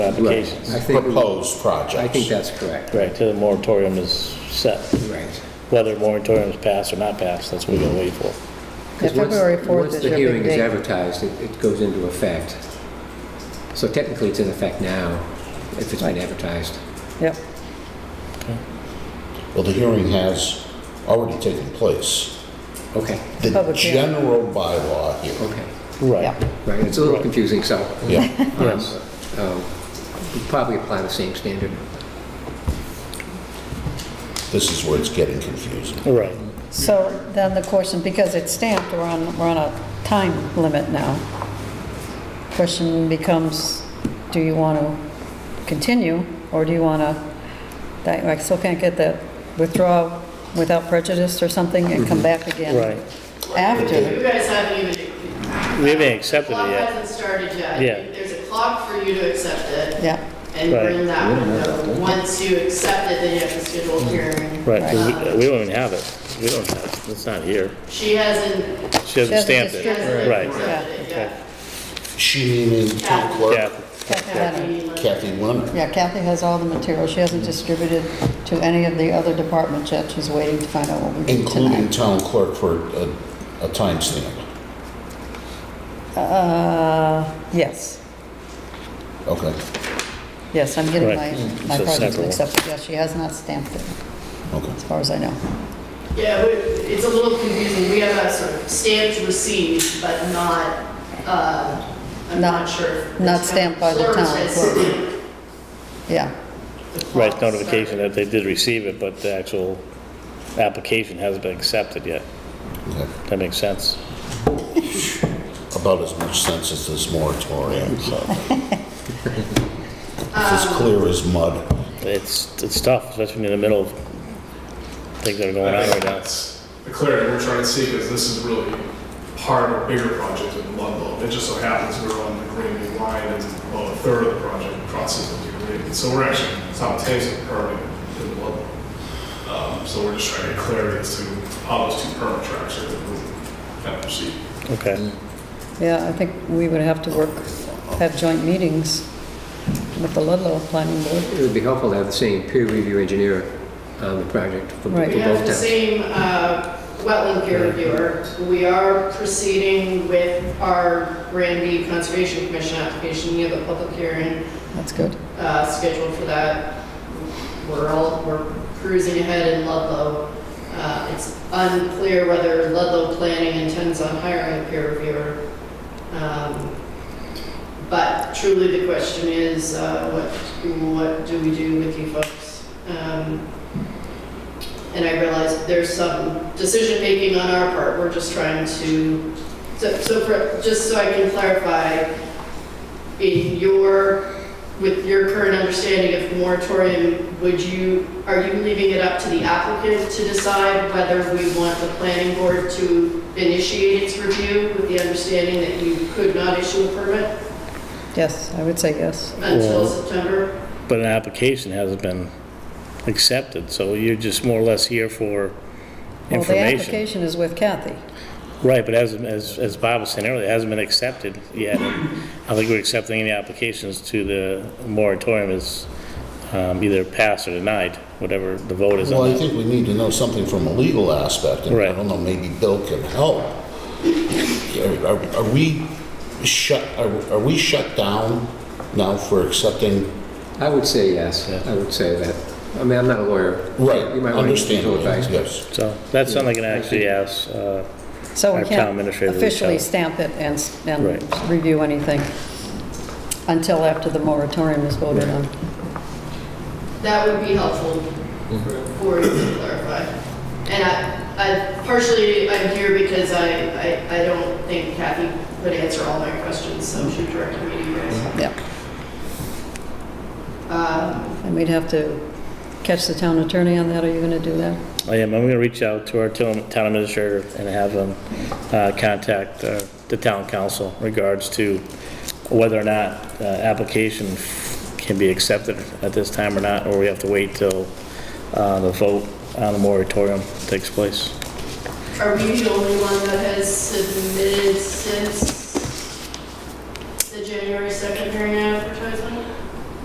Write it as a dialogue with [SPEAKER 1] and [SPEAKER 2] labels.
[SPEAKER 1] applications.
[SPEAKER 2] I think,
[SPEAKER 3] proposed
[SPEAKER 2] I think
[SPEAKER 3] projects.
[SPEAKER 2] that's correct,
[SPEAKER 1] Right, till the moratorium is set.
[SPEAKER 2] right.
[SPEAKER 1] Whether moratorium is passed or not passed, that's what we're gonna wait for.
[SPEAKER 2] Yeah,
[SPEAKER 4] Yeah, February 4th
[SPEAKER 2] Once
[SPEAKER 4] is your big
[SPEAKER 2] the hearing is
[SPEAKER 4] date.
[SPEAKER 2] advertised, it it goes into effect. So technically, it's in effect now, if it's been advertised.
[SPEAKER 4] Yep,
[SPEAKER 3] Well, the hearing has already taken place.
[SPEAKER 2] Okay,
[SPEAKER 3] The
[SPEAKER 4] Public hearing.
[SPEAKER 3] general bylaw here,
[SPEAKER 2] okay.
[SPEAKER 1] Right.
[SPEAKER 4] yeah,
[SPEAKER 2] Right, it's a little confusing, so
[SPEAKER 3] yeah.
[SPEAKER 1] Yes.
[SPEAKER 2] um, we probably apply the same standard.
[SPEAKER 3] This is where it's getting confusing.
[SPEAKER 1] Right.
[SPEAKER 4] so then the question, because it's stamped, we're on, we're on a time limit now. Question becomes, do you want to continue, or do you want to, that, I still can't get that withdrawal without prejudice or something and come back again?
[SPEAKER 1] Right.
[SPEAKER 4] After,
[SPEAKER 5] You guys haven't even.
[SPEAKER 1] We haven't accepted it
[SPEAKER 5] Clock
[SPEAKER 1] yet.
[SPEAKER 5] hasn't started yet.
[SPEAKER 1] Yeah.
[SPEAKER 5] There's a clock for you to accept it.
[SPEAKER 4] yeah,
[SPEAKER 5] And
[SPEAKER 1] Right.
[SPEAKER 5] bring that window. Once you accept it, then you have to schedule a hearing.
[SPEAKER 1] Mm-hmm. Right, 'cause we- we don't even have it. We don't have, it's not here.
[SPEAKER 5] She hasn't,
[SPEAKER 1] She hasn't
[SPEAKER 4] hasn't
[SPEAKER 1] stamped it.
[SPEAKER 5] she hasn't
[SPEAKER 1] Right.
[SPEAKER 5] accepted it yet.
[SPEAKER 3] She meaning town
[SPEAKER 1] Yeah,
[SPEAKER 3] clerk
[SPEAKER 4] Kathy Lennon.
[SPEAKER 3] Kathy Leonard.
[SPEAKER 4] Yeah, Kathy has all the material, she hasn't distributed to any of the other departments yet, she's waiting to find out what we do
[SPEAKER 3] including
[SPEAKER 4] tonight.
[SPEAKER 3] town clerk for a, a timestamp.
[SPEAKER 4] Uh, yes,
[SPEAKER 3] Okay,
[SPEAKER 4] yes, I'm getting my,
[SPEAKER 1] Right. Mm,
[SPEAKER 4] my
[SPEAKER 1] So
[SPEAKER 4] projects
[SPEAKER 1] separate.
[SPEAKER 4] mixed up, but yes, she has not stamped it,
[SPEAKER 3] okay.
[SPEAKER 4] as far as I know.
[SPEAKER 5] Yeah, we- it's a little confusing. We have a sort of stamped receipt, but not, uh, I'm
[SPEAKER 4] Not-
[SPEAKER 5] not sure. if the
[SPEAKER 4] not
[SPEAKER 5] town
[SPEAKER 4] stamped by the town
[SPEAKER 5] has
[SPEAKER 4] clerk.
[SPEAKER 5] stamped
[SPEAKER 4] Yeah,
[SPEAKER 5] the clock.
[SPEAKER 1] right, notification that they did receive it, but the actual application hasn't been accepted yet.
[SPEAKER 3] okay.
[SPEAKER 1] That makes sense.
[SPEAKER 3] About as much sense as this moratorium, so. It's as clear as mud.
[SPEAKER 1] It's, it's tough, especially when you're in the middle of things that are going on
[SPEAKER 6] I
[SPEAKER 1] right
[SPEAKER 6] think
[SPEAKER 1] now.
[SPEAKER 6] that's the clarity we're trying to see, because this is really part of a bigger project in Ludlow. It just so happens we're on the Green New Line, and about a third of the project crosses the Green New. So we're actually simultaneously permitting in Ludlow. Um, So we're just trying to get clarity as to how those two permit tracks are going to kind of proceed.
[SPEAKER 1] Okay,
[SPEAKER 4] yeah, I think we would have to work, have joint meetings with the Ludlow Planning Board.
[SPEAKER 2] It would be helpful to have the same peer review engineer on the project for for
[SPEAKER 4] Right.
[SPEAKER 2] both
[SPEAKER 5] We have the
[SPEAKER 2] towns.
[SPEAKER 5] same uh, wetland peer reviewer. We are proceeding with our Granby Conservation Commission application. We have a public hearing
[SPEAKER 4] That's good,
[SPEAKER 5] uh, scheduled for that. We're all, we're cruising ahead in Ludlow. Uh, It's unclear whether Ludlow Planning intends on hiring a peer reviewer. Um, But truly, the question is, uh, what, what do we do with you folks? Um, And I realize there's some decision-making on our part, we're just trying to, so, so for, just so I can clarify, in your with your current understanding of moratorium, would you, are you leaving it up to the applicant to decide whether we want the planning board to initiate its review with the understanding that you could not issue a permit
[SPEAKER 4] yes, I would say yes.
[SPEAKER 5] until
[SPEAKER 1] Well-
[SPEAKER 5] September?
[SPEAKER 1] but an application hasn't been accepted, so you're just more or less here for
[SPEAKER 4] Well, the
[SPEAKER 1] information.
[SPEAKER 4] application is with Kathy,
[SPEAKER 1] Right, but as, as, as Bob was saying earlier, it hasn't been accepted yet. I think we're accepting any applications to the moratorium is um, either passed or denied, whatever the vote is
[SPEAKER 3] Well,
[SPEAKER 1] on
[SPEAKER 3] I
[SPEAKER 1] that.
[SPEAKER 3] think we need to know something from a legal aspect, and I
[SPEAKER 1] Right.
[SPEAKER 3] don't know, maybe Bill can help. Are- Are are we shut, are are we shut down now for accepting?
[SPEAKER 2] I would say yes, I would say that. I mean, I'm not a lawyer.
[SPEAKER 3] Right,
[SPEAKER 2] You might want to get legal
[SPEAKER 3] understandably,
[SPEAKER 2] advice.
[SPEAKER 3] yes.
[SPEAKER 1] So that's something I can actually ask, uh,
[SPEAKER 4] so
[SPEAKER 1] Our
[SPEAKER 4] we
[SPEAKER 1] town
[SPEAKER 4] can't
[SPEAKER 1] administrator reached
[SPEAKER 4] officially
[SPEAKER 1] out.
[SPEAKER 4] stamp it and, s- and
[SPEAKER 1] Right.
[SPEAKER 4] review anything until after the moratorium is voted on.
[SPEAKER 5] That would be helpful for you to clarify. And I, I partially, I'm here because I, I, I don't think Kathy would answer all my questions, so she directed me to you guys.
[SPEAKER 4] Yeah.
[SPEAKER 5] Um,
[SPEAKER 4] And we'd have to catch the town attorney on that, are you going to do that?
[SPEAKER 1] I am, I'm going to reach out to our town town administrator and have them uh, contact uh, the town council in regards to whether or not uh, application can be accepted at this time or not, or we have to wait till uh, the vote on the moratorium takes place.
[SPEAKER 5] Are we the only one that has submitted since the January 2nd hearing advertising?